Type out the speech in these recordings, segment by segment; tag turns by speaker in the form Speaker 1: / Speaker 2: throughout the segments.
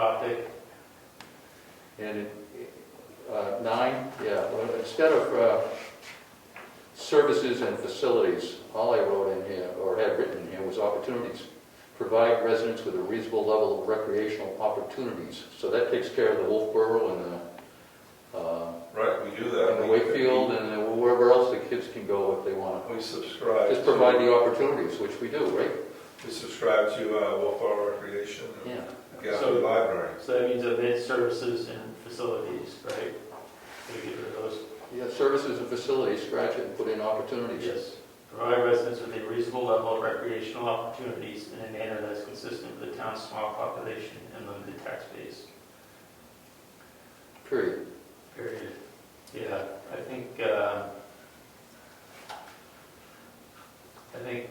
Speaker 1: topic. And it, uh, nine, yeah, well, instead of uh, services and facilities, all I wrote in here, or had written in here, was opportunities. Provide residents with a reasonable level of recreational opportunities. So that takes care of the Wolfboro and the, uh,
Speaker 2: Right, we do that.
Speaker 1: and the
Speaker 2: We-
Speaker 1: Wakefield and the- wherever else the kids can go if they want
Speaker 2: We
Speaker 1: to.
Speaker 2: subscribe.
Speaker 1: Just provide
Speaker 2: to-
Speaker 1: the opportunities, which we do, right?
Speaker 2: We subscribe to uh, Wolfboro Recreation and
Speaker 1: Yeah.
Speaker 2: Gaffney Library.
Speaker 3: So that means event services and facilities, right? We get rid of those.
Speaker 1: Yeah, services and facilities, scratch it and put in opportunities.
Speaker 3: Yes. Provide residents with a reasonable level of recreational opportunities in a manner that's consistent with the town's small population and limited tax base.
Speaker 1: Period.
Speaker 3: Period. Yeah, I think, uh, I think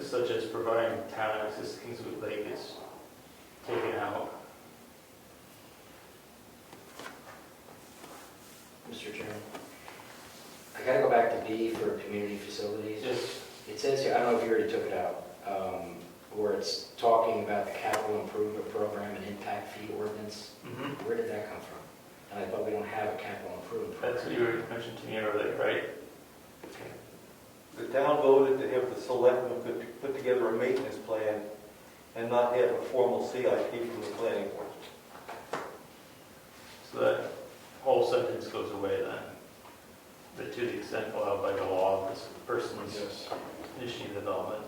Speaker 3: such as providing town access to Kingswood Lake is taken out.
Speaker 4: Mr. Chairman. I gotta go back to B for community facilities.
Speaker 3: Yes.
Speaker 4: It says here, I don't know if you already took it out, um, where it's talking about the capital improvement program and impact fee ordinance.
Speaker 3: Mhm.
Speaker 4: Where did that come from? And I thought we don't have a capital improvement
Speaker 3: That's what
Speaker 4: program.
Speaker 3: you were mentioning to me earlier, right?
Speaker 5: The town voted to have the selectmen put- put together a maintenance plan and not have a formal CIP from the planning board.
Speaker 3: So that whole sentence goes away then. But to the extent allowed by the law, this person's initiating development.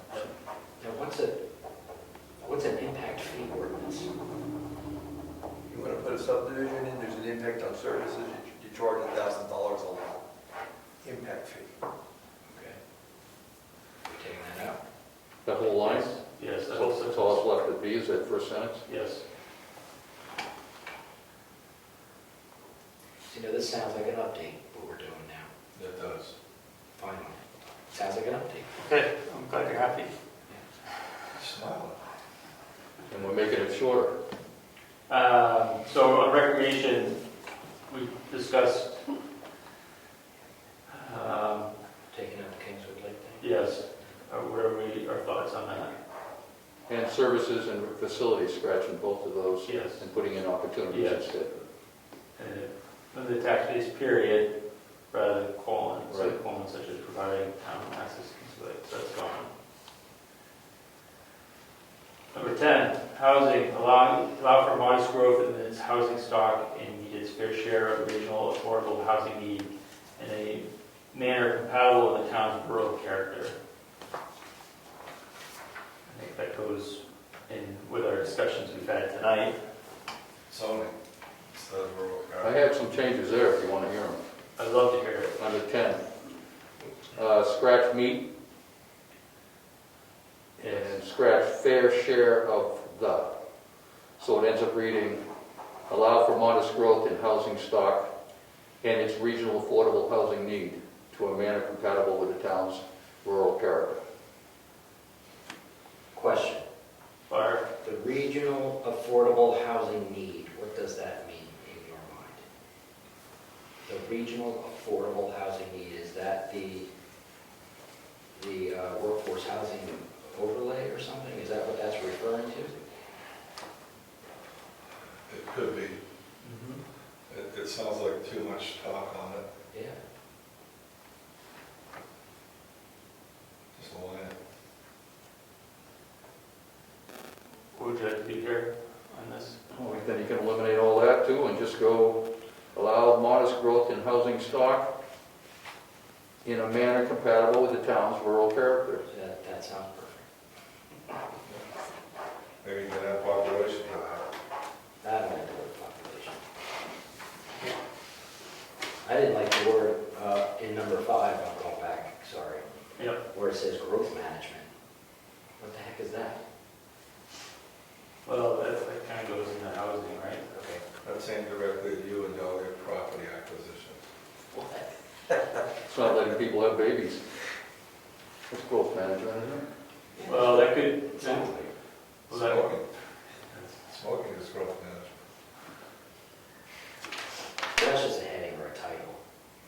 Speaker 4: Now, what's a, what's an impact fee ordinance?
Speaker 6: You want to put a subdivision in, there's an impact on services, you- you charge a thousand dollars a lot, impact fee.
Speaker 4: Okay. We're taking that out.
Speaker 1: That whole line?
Speaker 3: Yes, that
Speaker 1: So
Speaker 3: whole
Speaker 1: so all
Speaker 3: sentence.
Speaker 1: that's left to be is that first sentence?
Speaker 3: Yes.
Speaker 4: You know, this sounds like an update, what we're doing now,
Speaker 2: That does.
Speaker 4: finally. Sounds like an update.
Speaker 3: Okay, I'm glad you're happy.
Speaker 2: Smile.
Speaker 1: And we're making it shorter.
Speaker 3: Um, So on recreation, we discussed, um,
Speaker 4: Taking out the Kingswood Lake thing.
Speaker 3: yes, uh, where are we, our thoughts on that?
Speaker 1: And services and facilities, scratching both of those
Speaker 3: Yes.
Speaker 1: and putting in opportunities
Speaker 3: Yes.
Speaker 1: instead.
Speaker 3: And then Uh, the tax base period, rather than colon, so
Speaker 1: Right.
Speaker 3: colon such as providing town access to the lake, so that's gone. Number ten, housing, allow, allow for modest growth in its housing stock and meet its fair share of regional affordable housing need in a manner compatible with the town's rural character. I think that goes in with our discussions we've had tonight.
Speaker 2: Zoning. It's the rural
Speaker 1: I
Speaker 2: economy.
Speaker 1: have some changes there if you want to hear them.
Speaker 3: I'd love to hear it.
Speaker 1: Under 10, uh, scratch meat and scratch fair share of the. So it ends up reading, allow for modest growth in housing stock and its regional affordable housing need to a manner compatible with the town's rural character.
Speaker 4: Question.
Speaker 3: Barb?
Speaker 4: The regional affordable housing need, what does that mean in your mind? The regional affordable housing need, is that the, the uh, workforce housing overlay or something? Is that what that's referring to?
Speaker 2: It could be.
Speaker 3: Mm-hmm.
Speaker 2: It, it sounds like too much talk on it,
Speaker 4: Yeah.
Speaker 2: just a line.
Speaker 3: Would you like to be here on this?
Speaker 1: Well, Then Oh, you can eliminate all that too and just go allow modest growth in housing stock in a manner compatible with the town's rural character.
Speaker 4: That, that sounds perfect.
Speaker 2: Maybe you can have population.
Speaker 4: That might be the population. I didn't like the word, uh, in number five, I'll go back, sorry,
Speaker 3: Yep.
Speaker 4: where it says growth management. What the heck is that?
Speaker 3: Well, that, that kind of goes into housing, right?
Speaker 4: Okay.
Speaker 2: That's aimed directly at you and delegate property acquisitions.
Speaker 4: What?
Speaker 1: It's not letting people have babies. It's growth management, isn't it?
Speaker 3: Well, that could,
Speaker 4: Sounds like.
Speaker 3: well, that,
Speaker 2: Smoking. Smoking is growth management.
Speaker 4: That's just a heading or a title.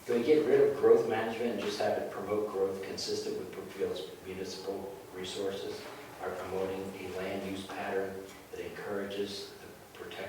Speaker 4: Can we get rid of growth management and just have it promote growth consistent with Brookfield's municipal resources? Are promoting a land use pattern that encourages the protection